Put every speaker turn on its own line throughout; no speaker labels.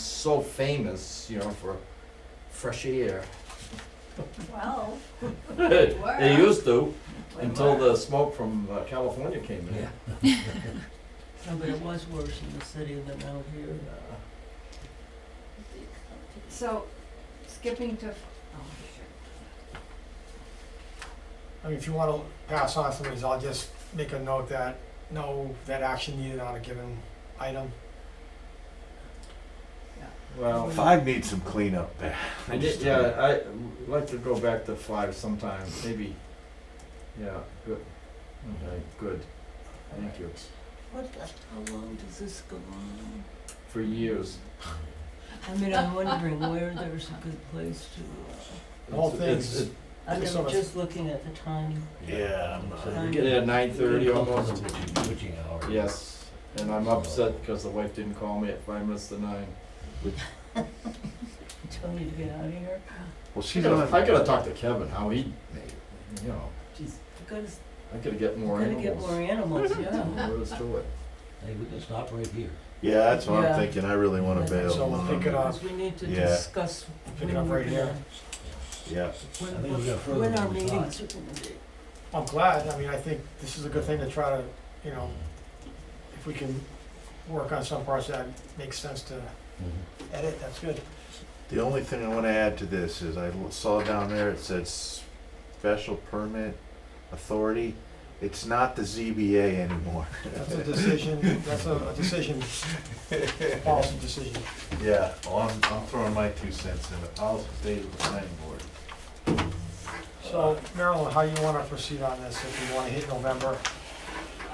so famous, you know, for fresh air.
Well,
They
were.
used to,
we
until
were.
the smoke from uh, California came in.
No, but it was worse in the city than out here.
So, skipping to, oh,
I mean, if you wanna pass on some of these, I'll just make a note that, no, that action needed on a given item.
Well,
Five needs some cleanup there.
I did, yeah, I would like to go back to five sometime, maybe, yeah, good, okay, good, thank you,
What the, how long does this go on?
for years.
I mean, I'm wondering where there's a good place to,
The whole
It's- it's-
thing's-
it-
uh, I'm
There's so much-
just looking at the time.
Yeah, I'm not.
We get there at uh, nine thirty almost,
Witching hour.
yes, and I'm upset because the wife didn't call me at five minutes to nine.
Telling you to get out of here.
Well,
I
she's on.
gotta, I gotta talk to Kevin, how he made it, you know,
Jeez, I gotta, s-
I gotta get more
gotta get more
animals.
animals, yeah.
Let's do it.
Hey, we can stop right here.
Yeah, that's what
Yeah.
I'm thinking. I really wanna
Yeah.
bail.
So we'll pick it up.
Because we need to
Yeah.
discuss
Pick
when
it up
we're
right here.
gonna,
Yeah.
when,
I think we got further
when
than
our
we thought.
meetings are gonna be.
I'm glad, I mean, I think this is a good thing to try to, you know, if we can work on some parts that makes sense to
Mm-hmm.
edit, that's good.
The only thing I wanna add to this is I l- saw down there, it said special permit authority. It's not the ZBA anymore.
That's a decision, that's a a decision, policy decision.
Yeah, well, I'm, I'm throwing my two cents in. The policy stays with the planning board.
So Marilyn, how you wanna proceed on this, if you wanna hit November?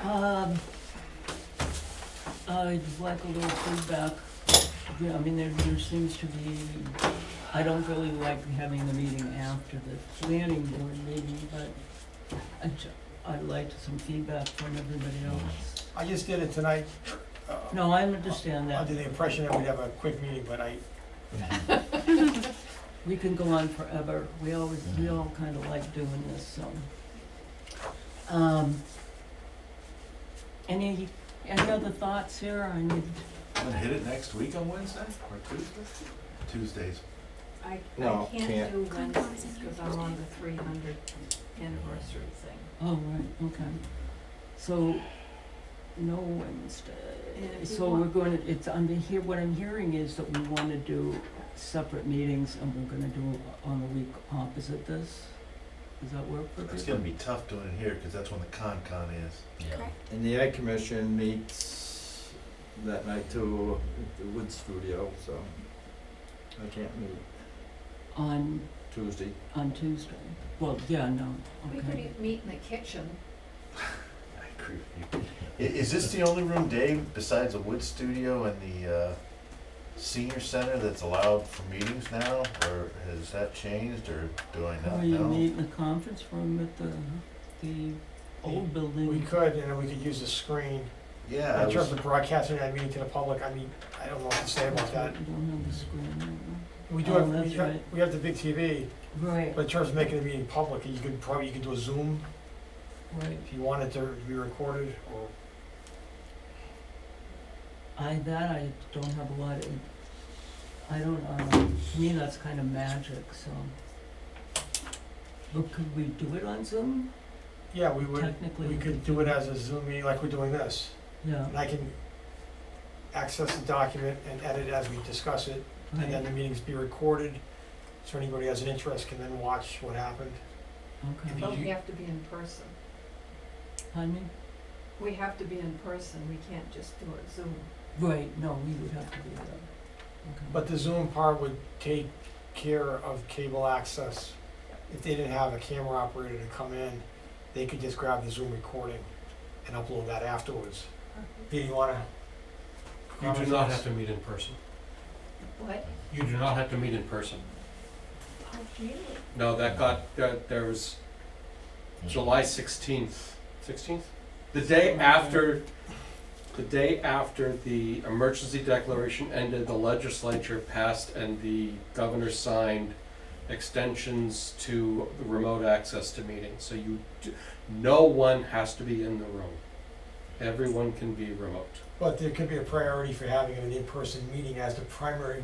Um, I'd like a little feedback. Yeah, I mean, there, there seems to be, I don't really like having the meeting after the planning board meeting, but I ju- I'd like some feedback from everybody else.
I just did it tonight. uh,
No, I understand that.
Under the impression that we'd have a quick meeting, but I,
We can go on forever. We always, we all kind of like doing this, so. Um, any, any other thoughts here? I need,
I'm gonna hit it next week on Wednesday or Tuesday? Tuesdays.
I,
No,
I can't
can't.
do Wednesdays because I'm on the three hundred anniversary thing.
oh, right, okay. So, no Wednesday.
And if you
So we're
want-
going to, it's, I'm hear, what I'm hearing is that we want to do separate meetings and we're gonna do on the week opposite this. Does that work for people?
It's gonna be tough doing it here, cause that's when the con con is.
Yeah.
And the Ag Commission meets that night too, at the Wood Studio, so I can't meet
On,
Tuesday.
on Tuesday. Well, yeah, no,
We could e-,
okay.
eat- meet in the kitchen.
I agree with you. I- Is this the only room, Dave, besides the wood studio and the, uh, senior center that's allowed for meetings now? Or has that changed, or do I
Or
not
you
know?
meet in the conference room at the, the old building.
we could, and we could use the screen.
Yeah, I
In terms
was,
of broadcasting that meeting to the public, I mean, I don't know what to say about that.
We don't have the screen right
We do
Oh,
have, we
that's
have,
right.
we have the big TV,
now. Right,
but in terms of making the meeting public, you could probably, you could do a Zoom
right.
if you wanted to be recorded, or
I, that I don't have a lot of, I don't, um, to me, that's kind of magic, so. But could we do it on Zoom?
Yeah, we would,
Technically.
we could do it as a Zoom meeting like we're doing this.
Yeah,
And I can access the document and edit as we discuss it, and then
right,
the meetings be recorded. So anybody who has an interest can then watch what happened.
okay.
Did
But
you-
we have to be in person.
Pardon me?
We have to be in person. We can't just do it Zoom.
Right, no, we would have to do that. Okay.
But the Zoom part would take care of cable access. If they didn't have a camera operator to come in, they could just grab the Zoom recording and upload that afterwards. Do you wanna?
You do not have to meet in person.
What?
You do not have to meet in person.
Oh, really?
No, that got, that- there was
Hmm.
July sixteenth, sixteenth? The day after, the day after the emergency declaration ended, the legislature passed and the governor signed extensions to the remote access to meetings. So you, do- no one has to be in the room. Everyone can be remote.
But there could be a priority for having an in-person meeting as the primary